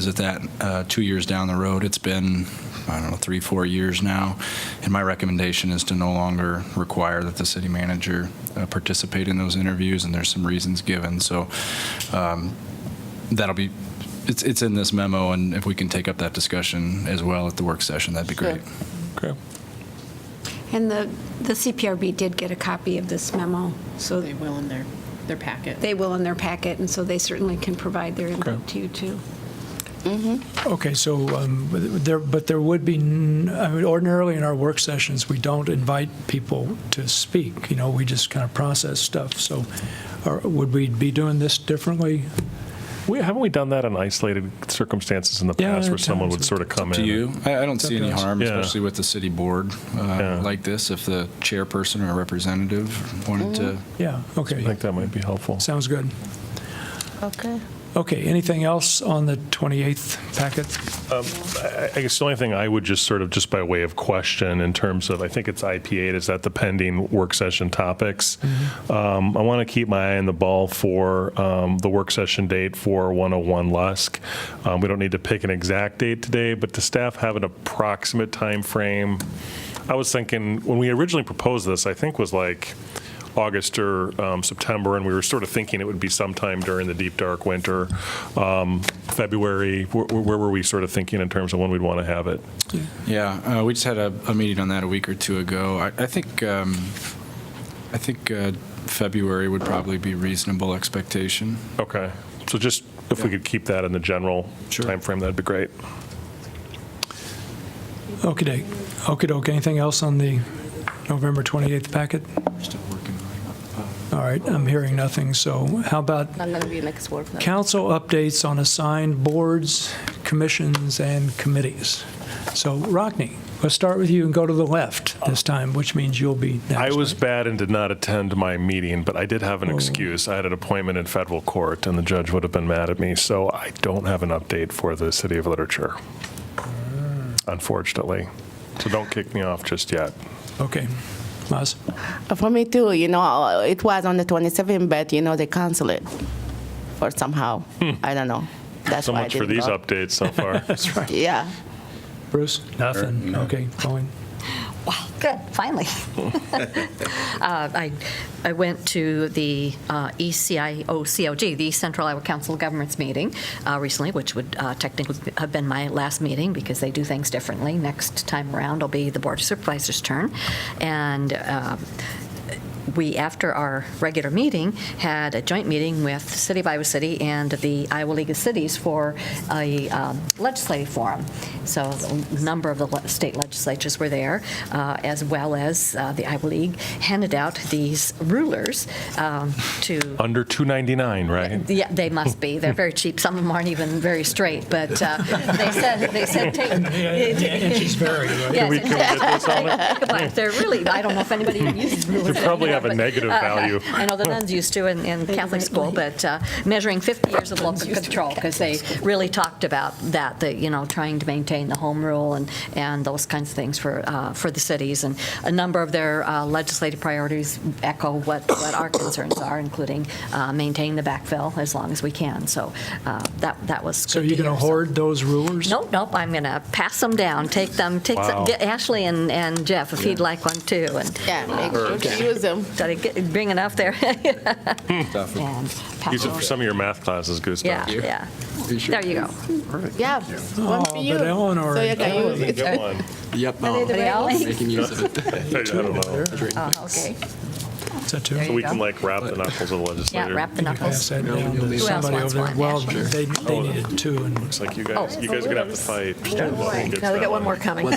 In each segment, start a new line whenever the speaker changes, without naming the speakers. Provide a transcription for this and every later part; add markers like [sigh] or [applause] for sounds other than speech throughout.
visit that uh, two years down the road. It's been, I don't know, three, four years now. And my recommendation is to no longer require that the city manager uh, participate in those interviews, and there's some reasons given. So um, that'll be, it's, it's in this memo, and if we can take up that discussion as well at the work session, that'd be
Sure.
great.
Okay.
And the, the CPRB did get a copy of this memo, so
They will in their, their packet.
they will in their packet, and so they certainly can provide their
Okay.
input to you, too.
Okay, so um, but there, but there would be, n- I mean, ordinarily in our work sessions, we don't invite people to speak, you know, we just kind of process stuff, so are- would we be doing this differently?
We, haven't we done that in isolated circumstances in the
Yeah,
past where someone
times
would sort of come
To
in?
you, I, I don't see any
Sometimes.
harm,
Yeah.
especially with the city board uh,
Yeah.
like this, if the chairperson or representative wanted to
Yeah,
I
okay,
think that might be helpful.
sounds good.
Okay.
Okay, anything else on the 28th packet?
I I guess the only thing I would just sort of, just by way of question, in terms of, I think it's IP8, is that the pending work session topics? Um, I want to keep my eye on the ball for um, the work session date for 101 Lusk. Um, We don't need to pick an exact date today, but the staff have an approximate time frame. I was thinking, when we originally proposed this, I think was like August or um, September, and we were sort of thinking it would be sometime during the deep, dark winter, um, February. Where where were we sort of thinking in terms of when we'd want to have it?
Yeah, uh, we just had a, a meeting on that a week or two ago. I, I think um, I think uh, February would probably be reasonable expectation.
Okay, so just if we
Yeah.
could keep that in the general
Sure.
timeframe, that'd be great.
Okay, doke okey doke, anything else on the November 28th packet?
Still working on
All right, I'm hearing nothing, so how about
Not going to be next work. no.
Council updates on assigned boards, commissions, and committees. So, Rockne, let's start with you and go to the left this time, which means you'll be
I
next.
was bad and did not attend my meeting, but I did have
Oh.
an excuse. I had an appointment in federal court, and the judge would have been mad at me, so I don't have an update for the City of Literature,
Ah.
unfortunately. So don't kick me off just yet.
Okay. Laz?
For me too, you know, uh, it was on the 27th, but you know, they canceled it or somehow. I don't know.
Hmm.
That's
So
why I
much for
didn't
these
go.
updates so
[laughs]
far.
Yeah.
Bruce? Nothing. Okay, Colleen?
Wow, good, finally. Uh, I I went to the uh, ECIO, COG, the East Central Iowa Council of Governments meeting uh, recently, which would uh, technically have been my last meeting because they do things differently. Next time around, it'll be the Board of Supervisors' turn. And um, we, after our regular meeting, had a joint meeting with the City of Iowa City and the Iowa League of Cities for a um, legislative forum. So a number of the le- state legislatures were there, uh, as well as uh, the Iowa League handed out these rulers um, to
Under 299, right?
yeah, they must be. They're very cheap. Some of them aren't even very straight, but uh, they said, they said, take.
and she's very, right?
Yes,
Can we, can we get this
[laughs]
on it?
but They're really, I don't know if anybody even uses rulers.
They probably have a
anymore, but- uh,
negative value.
I know the nuns used to in, in Catholic school, but uh, measuring 50 years of local control, because they really talked about that, that, you know, trying to maintain the home rule and, and those kinds of things for, uh, for the cities. And a number of their uh, legislative priorities echo what, what our concerns are, including uh, maintaining the backfill as long as we can. So uh, that, that was
So
good
you're
to
going to
hear. So-
hoard those rulers?
Nope, nope, I'm going to pass them down, take them, take
Wow.
some, get Ashley and, and Jeff, if you'd like one too, and
Yeah. Make sure to use them.
did I get- bring enough there? [laughs]
that.
And pass
Hmm. Use it
them.
for some of your math classes,
Yeah,
Gustav.
yeah.
sure?
There you go.
Yeah. One
Oh,
for you.
but Eleanor-
So you can use it.
Get one.
Yep. Making use of
[laughs]
it.
I don't know.
Oh, Okay.
Is that two?
There you
We can like wrap the knuckles of the
Yeah,
legislator.
wrap the
Pass
knuckles.
that down to
else
somebody
wants
over there.
one?
Well,
Yeah,
they, they needed two, and
It's Oh, like you guys, you guys are gonna have to fight.
Now Oh. we got one more coming. Yeah,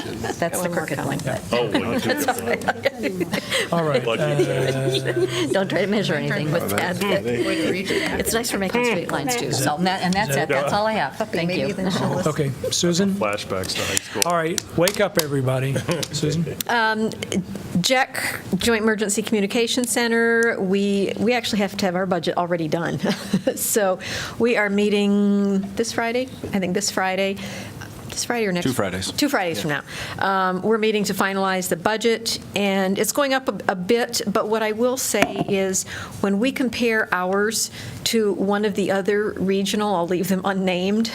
[laughs] That's the crooked one, but
Oh, well, that's all right.
[laughs]
all right.
Lucky
uh,
don't try to measure anything, but add-
[laughs]
it's nice for making straight lines [laughs] too. So, and that- and that's it, that's all I have. Thank you. [laughs]
Okay, Susan?
Flashbacks to high school.
All right, wake up,
[laughs]
everybody. Susan?
Jack E Joint Emergency Communication Center, we, we actually have to have our budget already done. [laughs] So we are meeting this Friday, I think this Friday, this Friday or next?
Two Fridays.
Two Fridays from now. Um, We're meeting to finalize the budget, and it's going up a- a bit, but what I will say is, when we compare ours to one of the other regional, I'll leave them unnamed,